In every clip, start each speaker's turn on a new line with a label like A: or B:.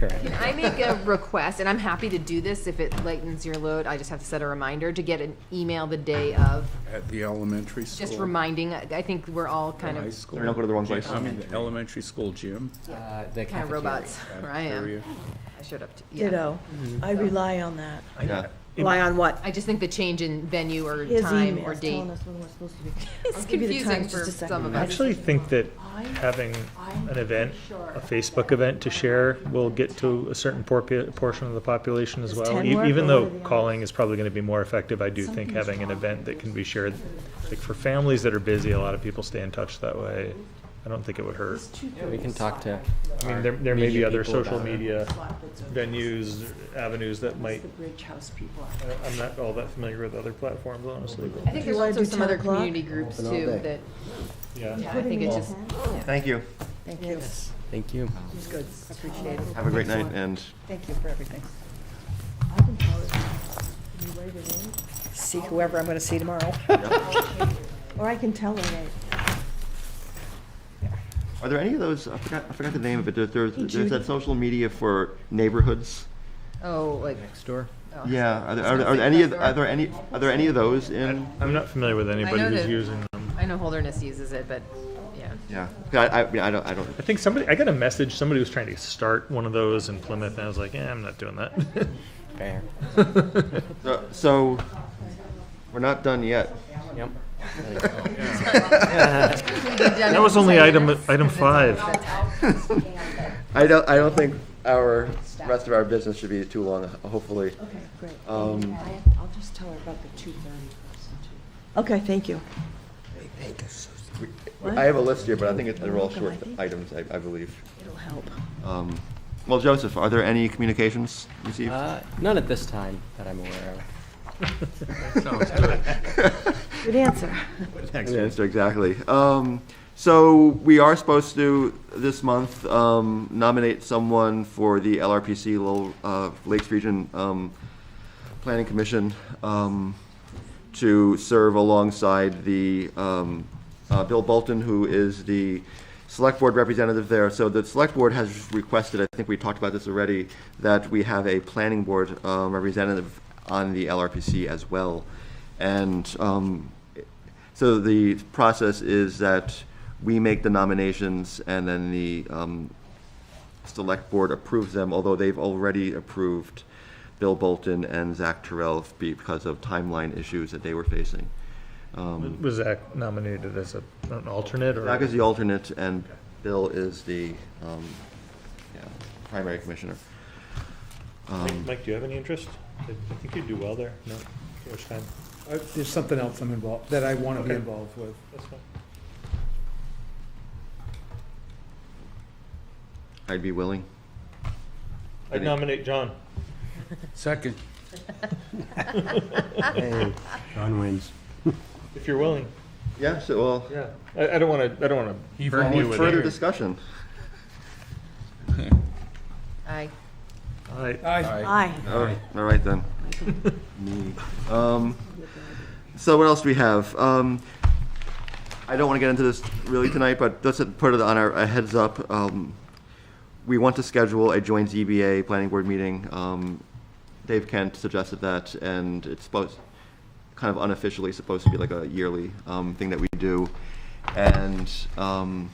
A: Correct.
B: I make a request, and I'm happy to do this if it lightens your load, I just have to set a reminder to get an email the day of,
C: At the elementary school.
B: just reminding, I I think we're all kind
C: High
B: of,
C: school.
D: Don't go to the wrong place.
C: I mean, the elementary school gym.
A: Uh, The
B: kind of
A: cafeteria.
B: robots, where I am.
C: cafeteria.
B: I showed up, to- yeah.
E: Ditto. I rely on that.
D: Yeah.
F: Rely on what?
B: I just think the change in venue or
E: His
B: time
E: emails
B: or date.
E: telling us when we're supposed to be.
B: It's
E: I'll give you the
B: confusing
E: times
B: for
E: just a second.
B: some of
G: I
B: us.
G: actually think that having an event, a Facebook event to share, will get to a certain porpi- portion of the population as
E: Does
G: well.
E: 10
G: E-
E: work
G: Even
E: or
G: though
E: what are the
G: calling is probably gonna be more effective, I do think having an event that can be shared, like for families that are busy, a lot of people stay in touch that way. I don't think it would hurt.
A: We can talk to.
G: I mean, there, there may be other social media venues, avenues that might,
H: Bridge House people.
G: I- I'm not all that familiar with other platforms, honestly,
B: I
G: but,
B: think
E: Do you
B: there's
E: wanna
B: also
E: do
B: some
E: 10
B: other
E: o'clock?
B: community groups
A: Open all
B: too
A: day.
B: that,
G: yeah.
B: yeah, I think it just,
D: Thank you.
F: Thank you.
A: Thank you.
F: It's good. I Appreciate it.
D: Have a great night and
F: Thank you for everything.
E: I can tell it. Can you write it in?
F: See whoever I'm going to see tomorrow.
E: Or I can tell her, right?
D: Are there any of those? I forgot. I forgot the name of it. There, there's,
E: Hey,
D: there's
E: Judy.
D: that social media for neighborhoods.
B: oh, like,
A: Next door.
B: oh.
D: Yeah. Are there, are,
B: gonna
D: are
B: say
D: any? Of,
B: Glassdoor.
D: are there any? Are there any of those in?
G: I'm not familiar with anybody
B: know
G: who's
B: that-
G: using them.
B: I know Holderness uses it, but, yeah.
D: Yeah. I, I, mean, I don't. I don't.
G: I think somebody, I got a message, somebody was trying to start one of those in Plymouth, and I was like, eh, I'm not doing that.
A: Fair.
D: So, so we're not done yet.
A: Yep.
G: That was only item, item five.
D: I don't. I don't think our rest of our business should be too long. Hopefully.
F: Okay, great.
D: Um,
F: I'll just tell her about the 2:30 person too.
E: Okay, thank you.
D: we- I have a list here, but I think it- they're all short items. I, I believe.
E: It'll help.
D: Um, well, Joseph, are there any communications received?
A: Uh, none at this time that I'm aware of.
E: Good answer.
D: Yeah, that's exactly. Um, so we are supposed to, this month, um, nominate someone for the LRPC, Lowell, uh, Lakes Region, um, Planning Commission, um, to serve alongside the, um, uh, Bill Bolton, who is the Select Board representative there. So the Select Board has requested, I think we talked about this already, that we have a Planning Board, um, representative on the LRPC as well. And, um, so the process is that we make the nominations and then the um, select board approves them, although they've already approved Bill Bolton and Zach Terrell because of timeline issues that they were facing. Um,
G: Was Zach nominated as a- an alternate or?
D: Zach is the alternate and Bill is the um, yeah, primary commissioner. Um,
G: Mike, do you have any interest? I I think you'd do well there. No, George, fine.
I: I- Uh, There's something else I'm involved, that I want to be
G: Okay.
I: involved with.
G: That's fine.
D: I'd be willing.
G: I'd nominate John.
C: Second.
A: Hey, John wins.
G: If you're willing,
D: Yeah, so, well,
G: yeah. I, I don't wanna, I don't wanna burn you with
D: further
G: it.
D: discussion.
B: I,
G: All right,
I: Aye.
E: Aye.
D: All right, all right then. Me. Um, So what else do we have? Um, I don't want to get into this really tonight, but just to put it on our, a heads up, um, we want to schedule a joint ZBA planning board meeting. Um, Dave Kent suggested that, and it's supposed, kind of unofficially supposed to be like a yearly um, thing that we do. And um,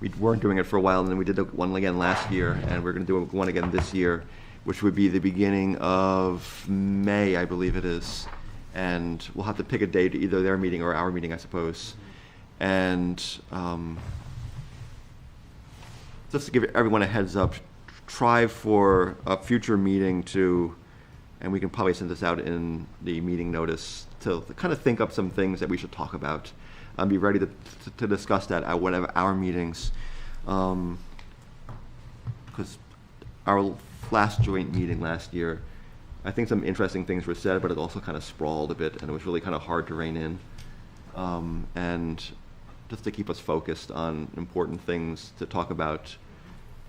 D: we weren't doing it for a while, and then we did the one again last year, and we're going to do one again this year, which would be the beginning of May, I believe it is. And we'll have to pick a date, either their meeting or our meeting, I suppose. And um, just to give everyone a heads up, try for a future meeting to, and we can probably send this out in the meeting notice, to kind of think up some things that we should talk about. And be ready to, to discuss that at one of our meetings. Um, because our last joint meeting last year, I think some interesting things were said, but it also kind of sprawled a bit, and it was really kind of hard to rein in. Um, and just to keep us focused on important things to talk about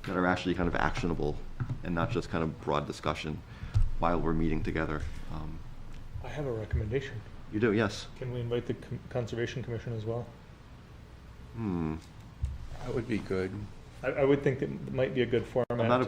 D: that are actually kind of actionable and not just kind of broad discussion while we're meeting together. Um,
G: I have a recommendation.
D: you do, yes.
G: Can we invite the Com- Conservation Commission as well?
D: Hmm.
C: That would be good.
G: I, I would think that might be a good format
D: not